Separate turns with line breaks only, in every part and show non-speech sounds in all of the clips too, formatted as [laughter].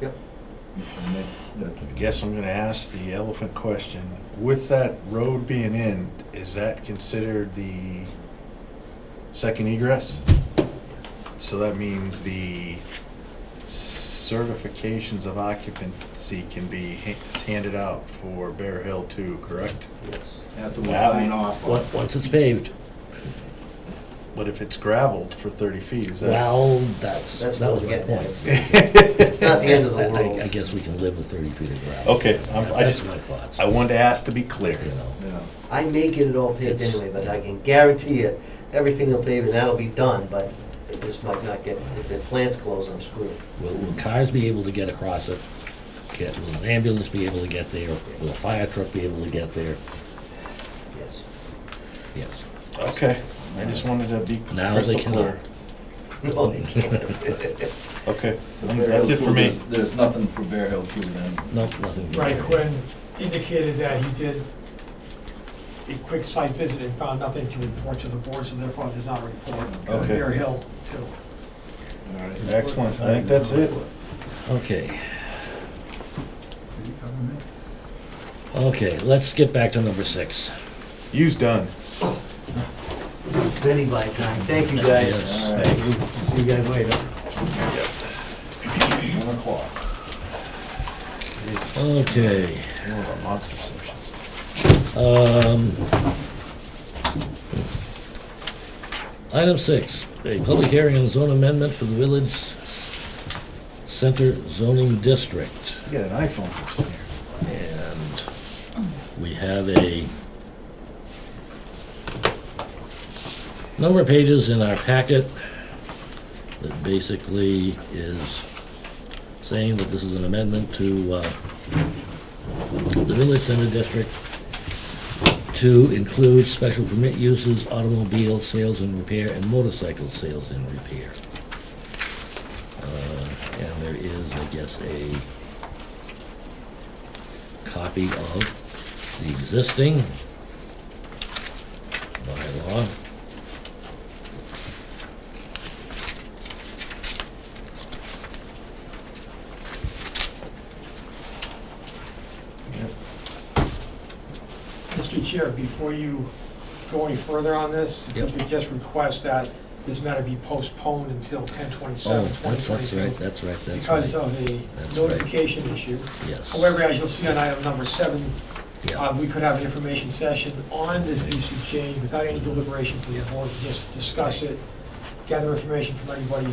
Yep.
And then, you know, I guess I'm gonna ask the elephant question. With that road being in, is that considered the second egress? So that means the certifications of occupancy can be ha- handed out for Bear Hill too, correct?
Yes. After we
That-
sign off. on-
Once, once it's paved.
But if it's gravelled for thirty feet, is [laughs] that?
Well, that's,
That's
that
what
was
we're
my
getting at.
point.
It's it's not the end of
I-
the
I-
world.
I guess we can live with thirty feet of gravel.
Okay, I'm- I
That's
just,
my thoughts,
I
you
wanted to ask to be clear.
know.
Yeah. I may get it all paved
It's-
anyway, but I can guarantee you, everything will pave and that'll be done, but it just might not get, if the plant's closed, I'm screwed.
Will, will cars be able to get across it? Can, will an ambulance be able to get there? Will a fire truck be able to get there?
Yes. [laughs]
Yes.
Okay, I just wanted to be
Now they
crystal clear.
cannot.
No, they can't.
Okay, that's it for me.
There's nothing for Bear Hill Two then.
No, nothing.
Right, Quinn indicated that he did a quick site visit and found nothing to report to the board, so therefore there's not a report.
Okay.
Bear Hill, too.
Excellent, I think that's it.
Okay, okay, let's get back to number six.
You's done.
Many by time. Thank you, guys.
Yes.
All right,
See you guys later.
one o'clock.
Jesus,
Okay.
It's one of our monster sessions.
Um, Item six, a public hearing on zone amendment for the Village Center zoning district.
You got an iPhone or something here.
And we have a number of pages in our packet that basically is saying that this is an amendment to uh, the Village Center District to include special permit uses, automobile sales and repair, and motorcycle sales and repair. Uh, And there is, I guess, a copy of the existing bylaw.
Yep.
Mr. Chair, before you go any further on this, if you
Yep.
could just request that this matter be postponed until ten
Oh,
twenty-seven, twenty
that's, that's right,
twenty-two.
that's right, that's
Because
right.
of the
That's right.
notification issue.
Yes,
However, as you'll see on item number seven,
yeah,
uh, we could have an information session on this VC change without any deliberation from the board, just discuss it, gather information from everybody in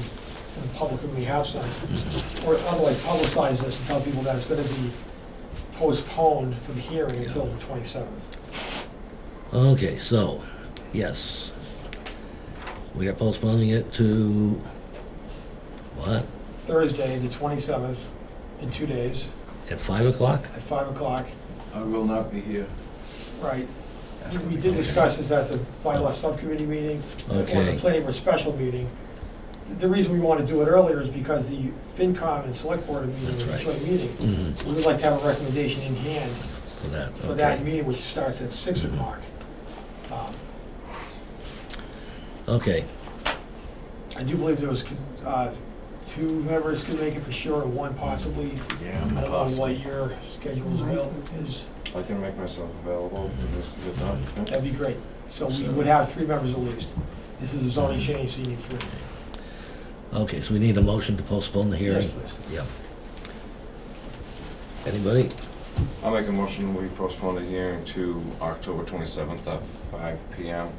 the public who may have some, or otherwise publicize this and tell people that it's gonna be postponed for the hearing until the twenty-seventh.
okay, so, yes. We are postponing it to, what,
Thursday, the twenty-seventh, in two days,
at five o'clock?
at five o'clock,
I will not be here.
right?
That's gonna
We
be
did
good.
discuss this at the bylaw subcommittee meeting, or the
Okay.
planning board special meeting. The reason we want to do it earlier is because the FinCom and select board are meeting,
That's
a
right.
joint meeting.
Mhm,
We would like to have a recommendation in hand
For that,
for
okay.
that
Mm-hmm.
meeting, which starts at six o'clock. Um,
Okay,
I do believe there was, uh, two members could make it for sure, and one possibly.
Yeah,
I
I'm
don't know what
possible.
your schedule is avail- is,
I can make myself available for this to get done.
that'd be great. So we would have three members at least. This is a zoning change, so you need three.
okay, so we need a motion to postpone the
Yes,
hearing?
please.
Yeah. Anybody?
I'll make a motion, we postpone the hearing to October 27th at 5 PM.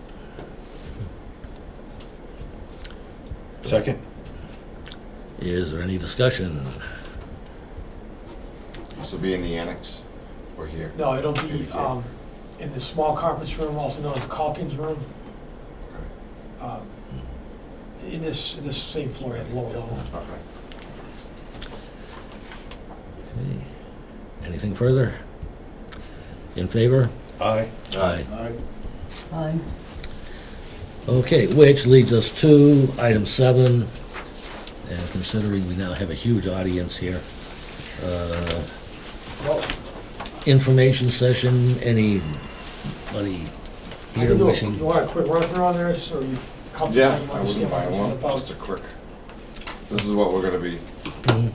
Second?
Is there any discussion?
This will be in the annex, or here.
No, it'll be um, in the small conference room, also known as Calkins Room. Um, In this, in this same floor at the lower level.
Okay.
Okay. Anything further? In favor?
Aye.
Aye.
All right.
Aye.
Okay, which leads us to item seven, and considering we now have a huge audience here, uh, information session, anybody
I
here
can do a-
wishing?
You want a quick run through on this, or you comfortable?
Yeah,
You
I
understand what
wouldn't mind
this is
one,
about?
just a quick, this is what we're gonna be
Mhm.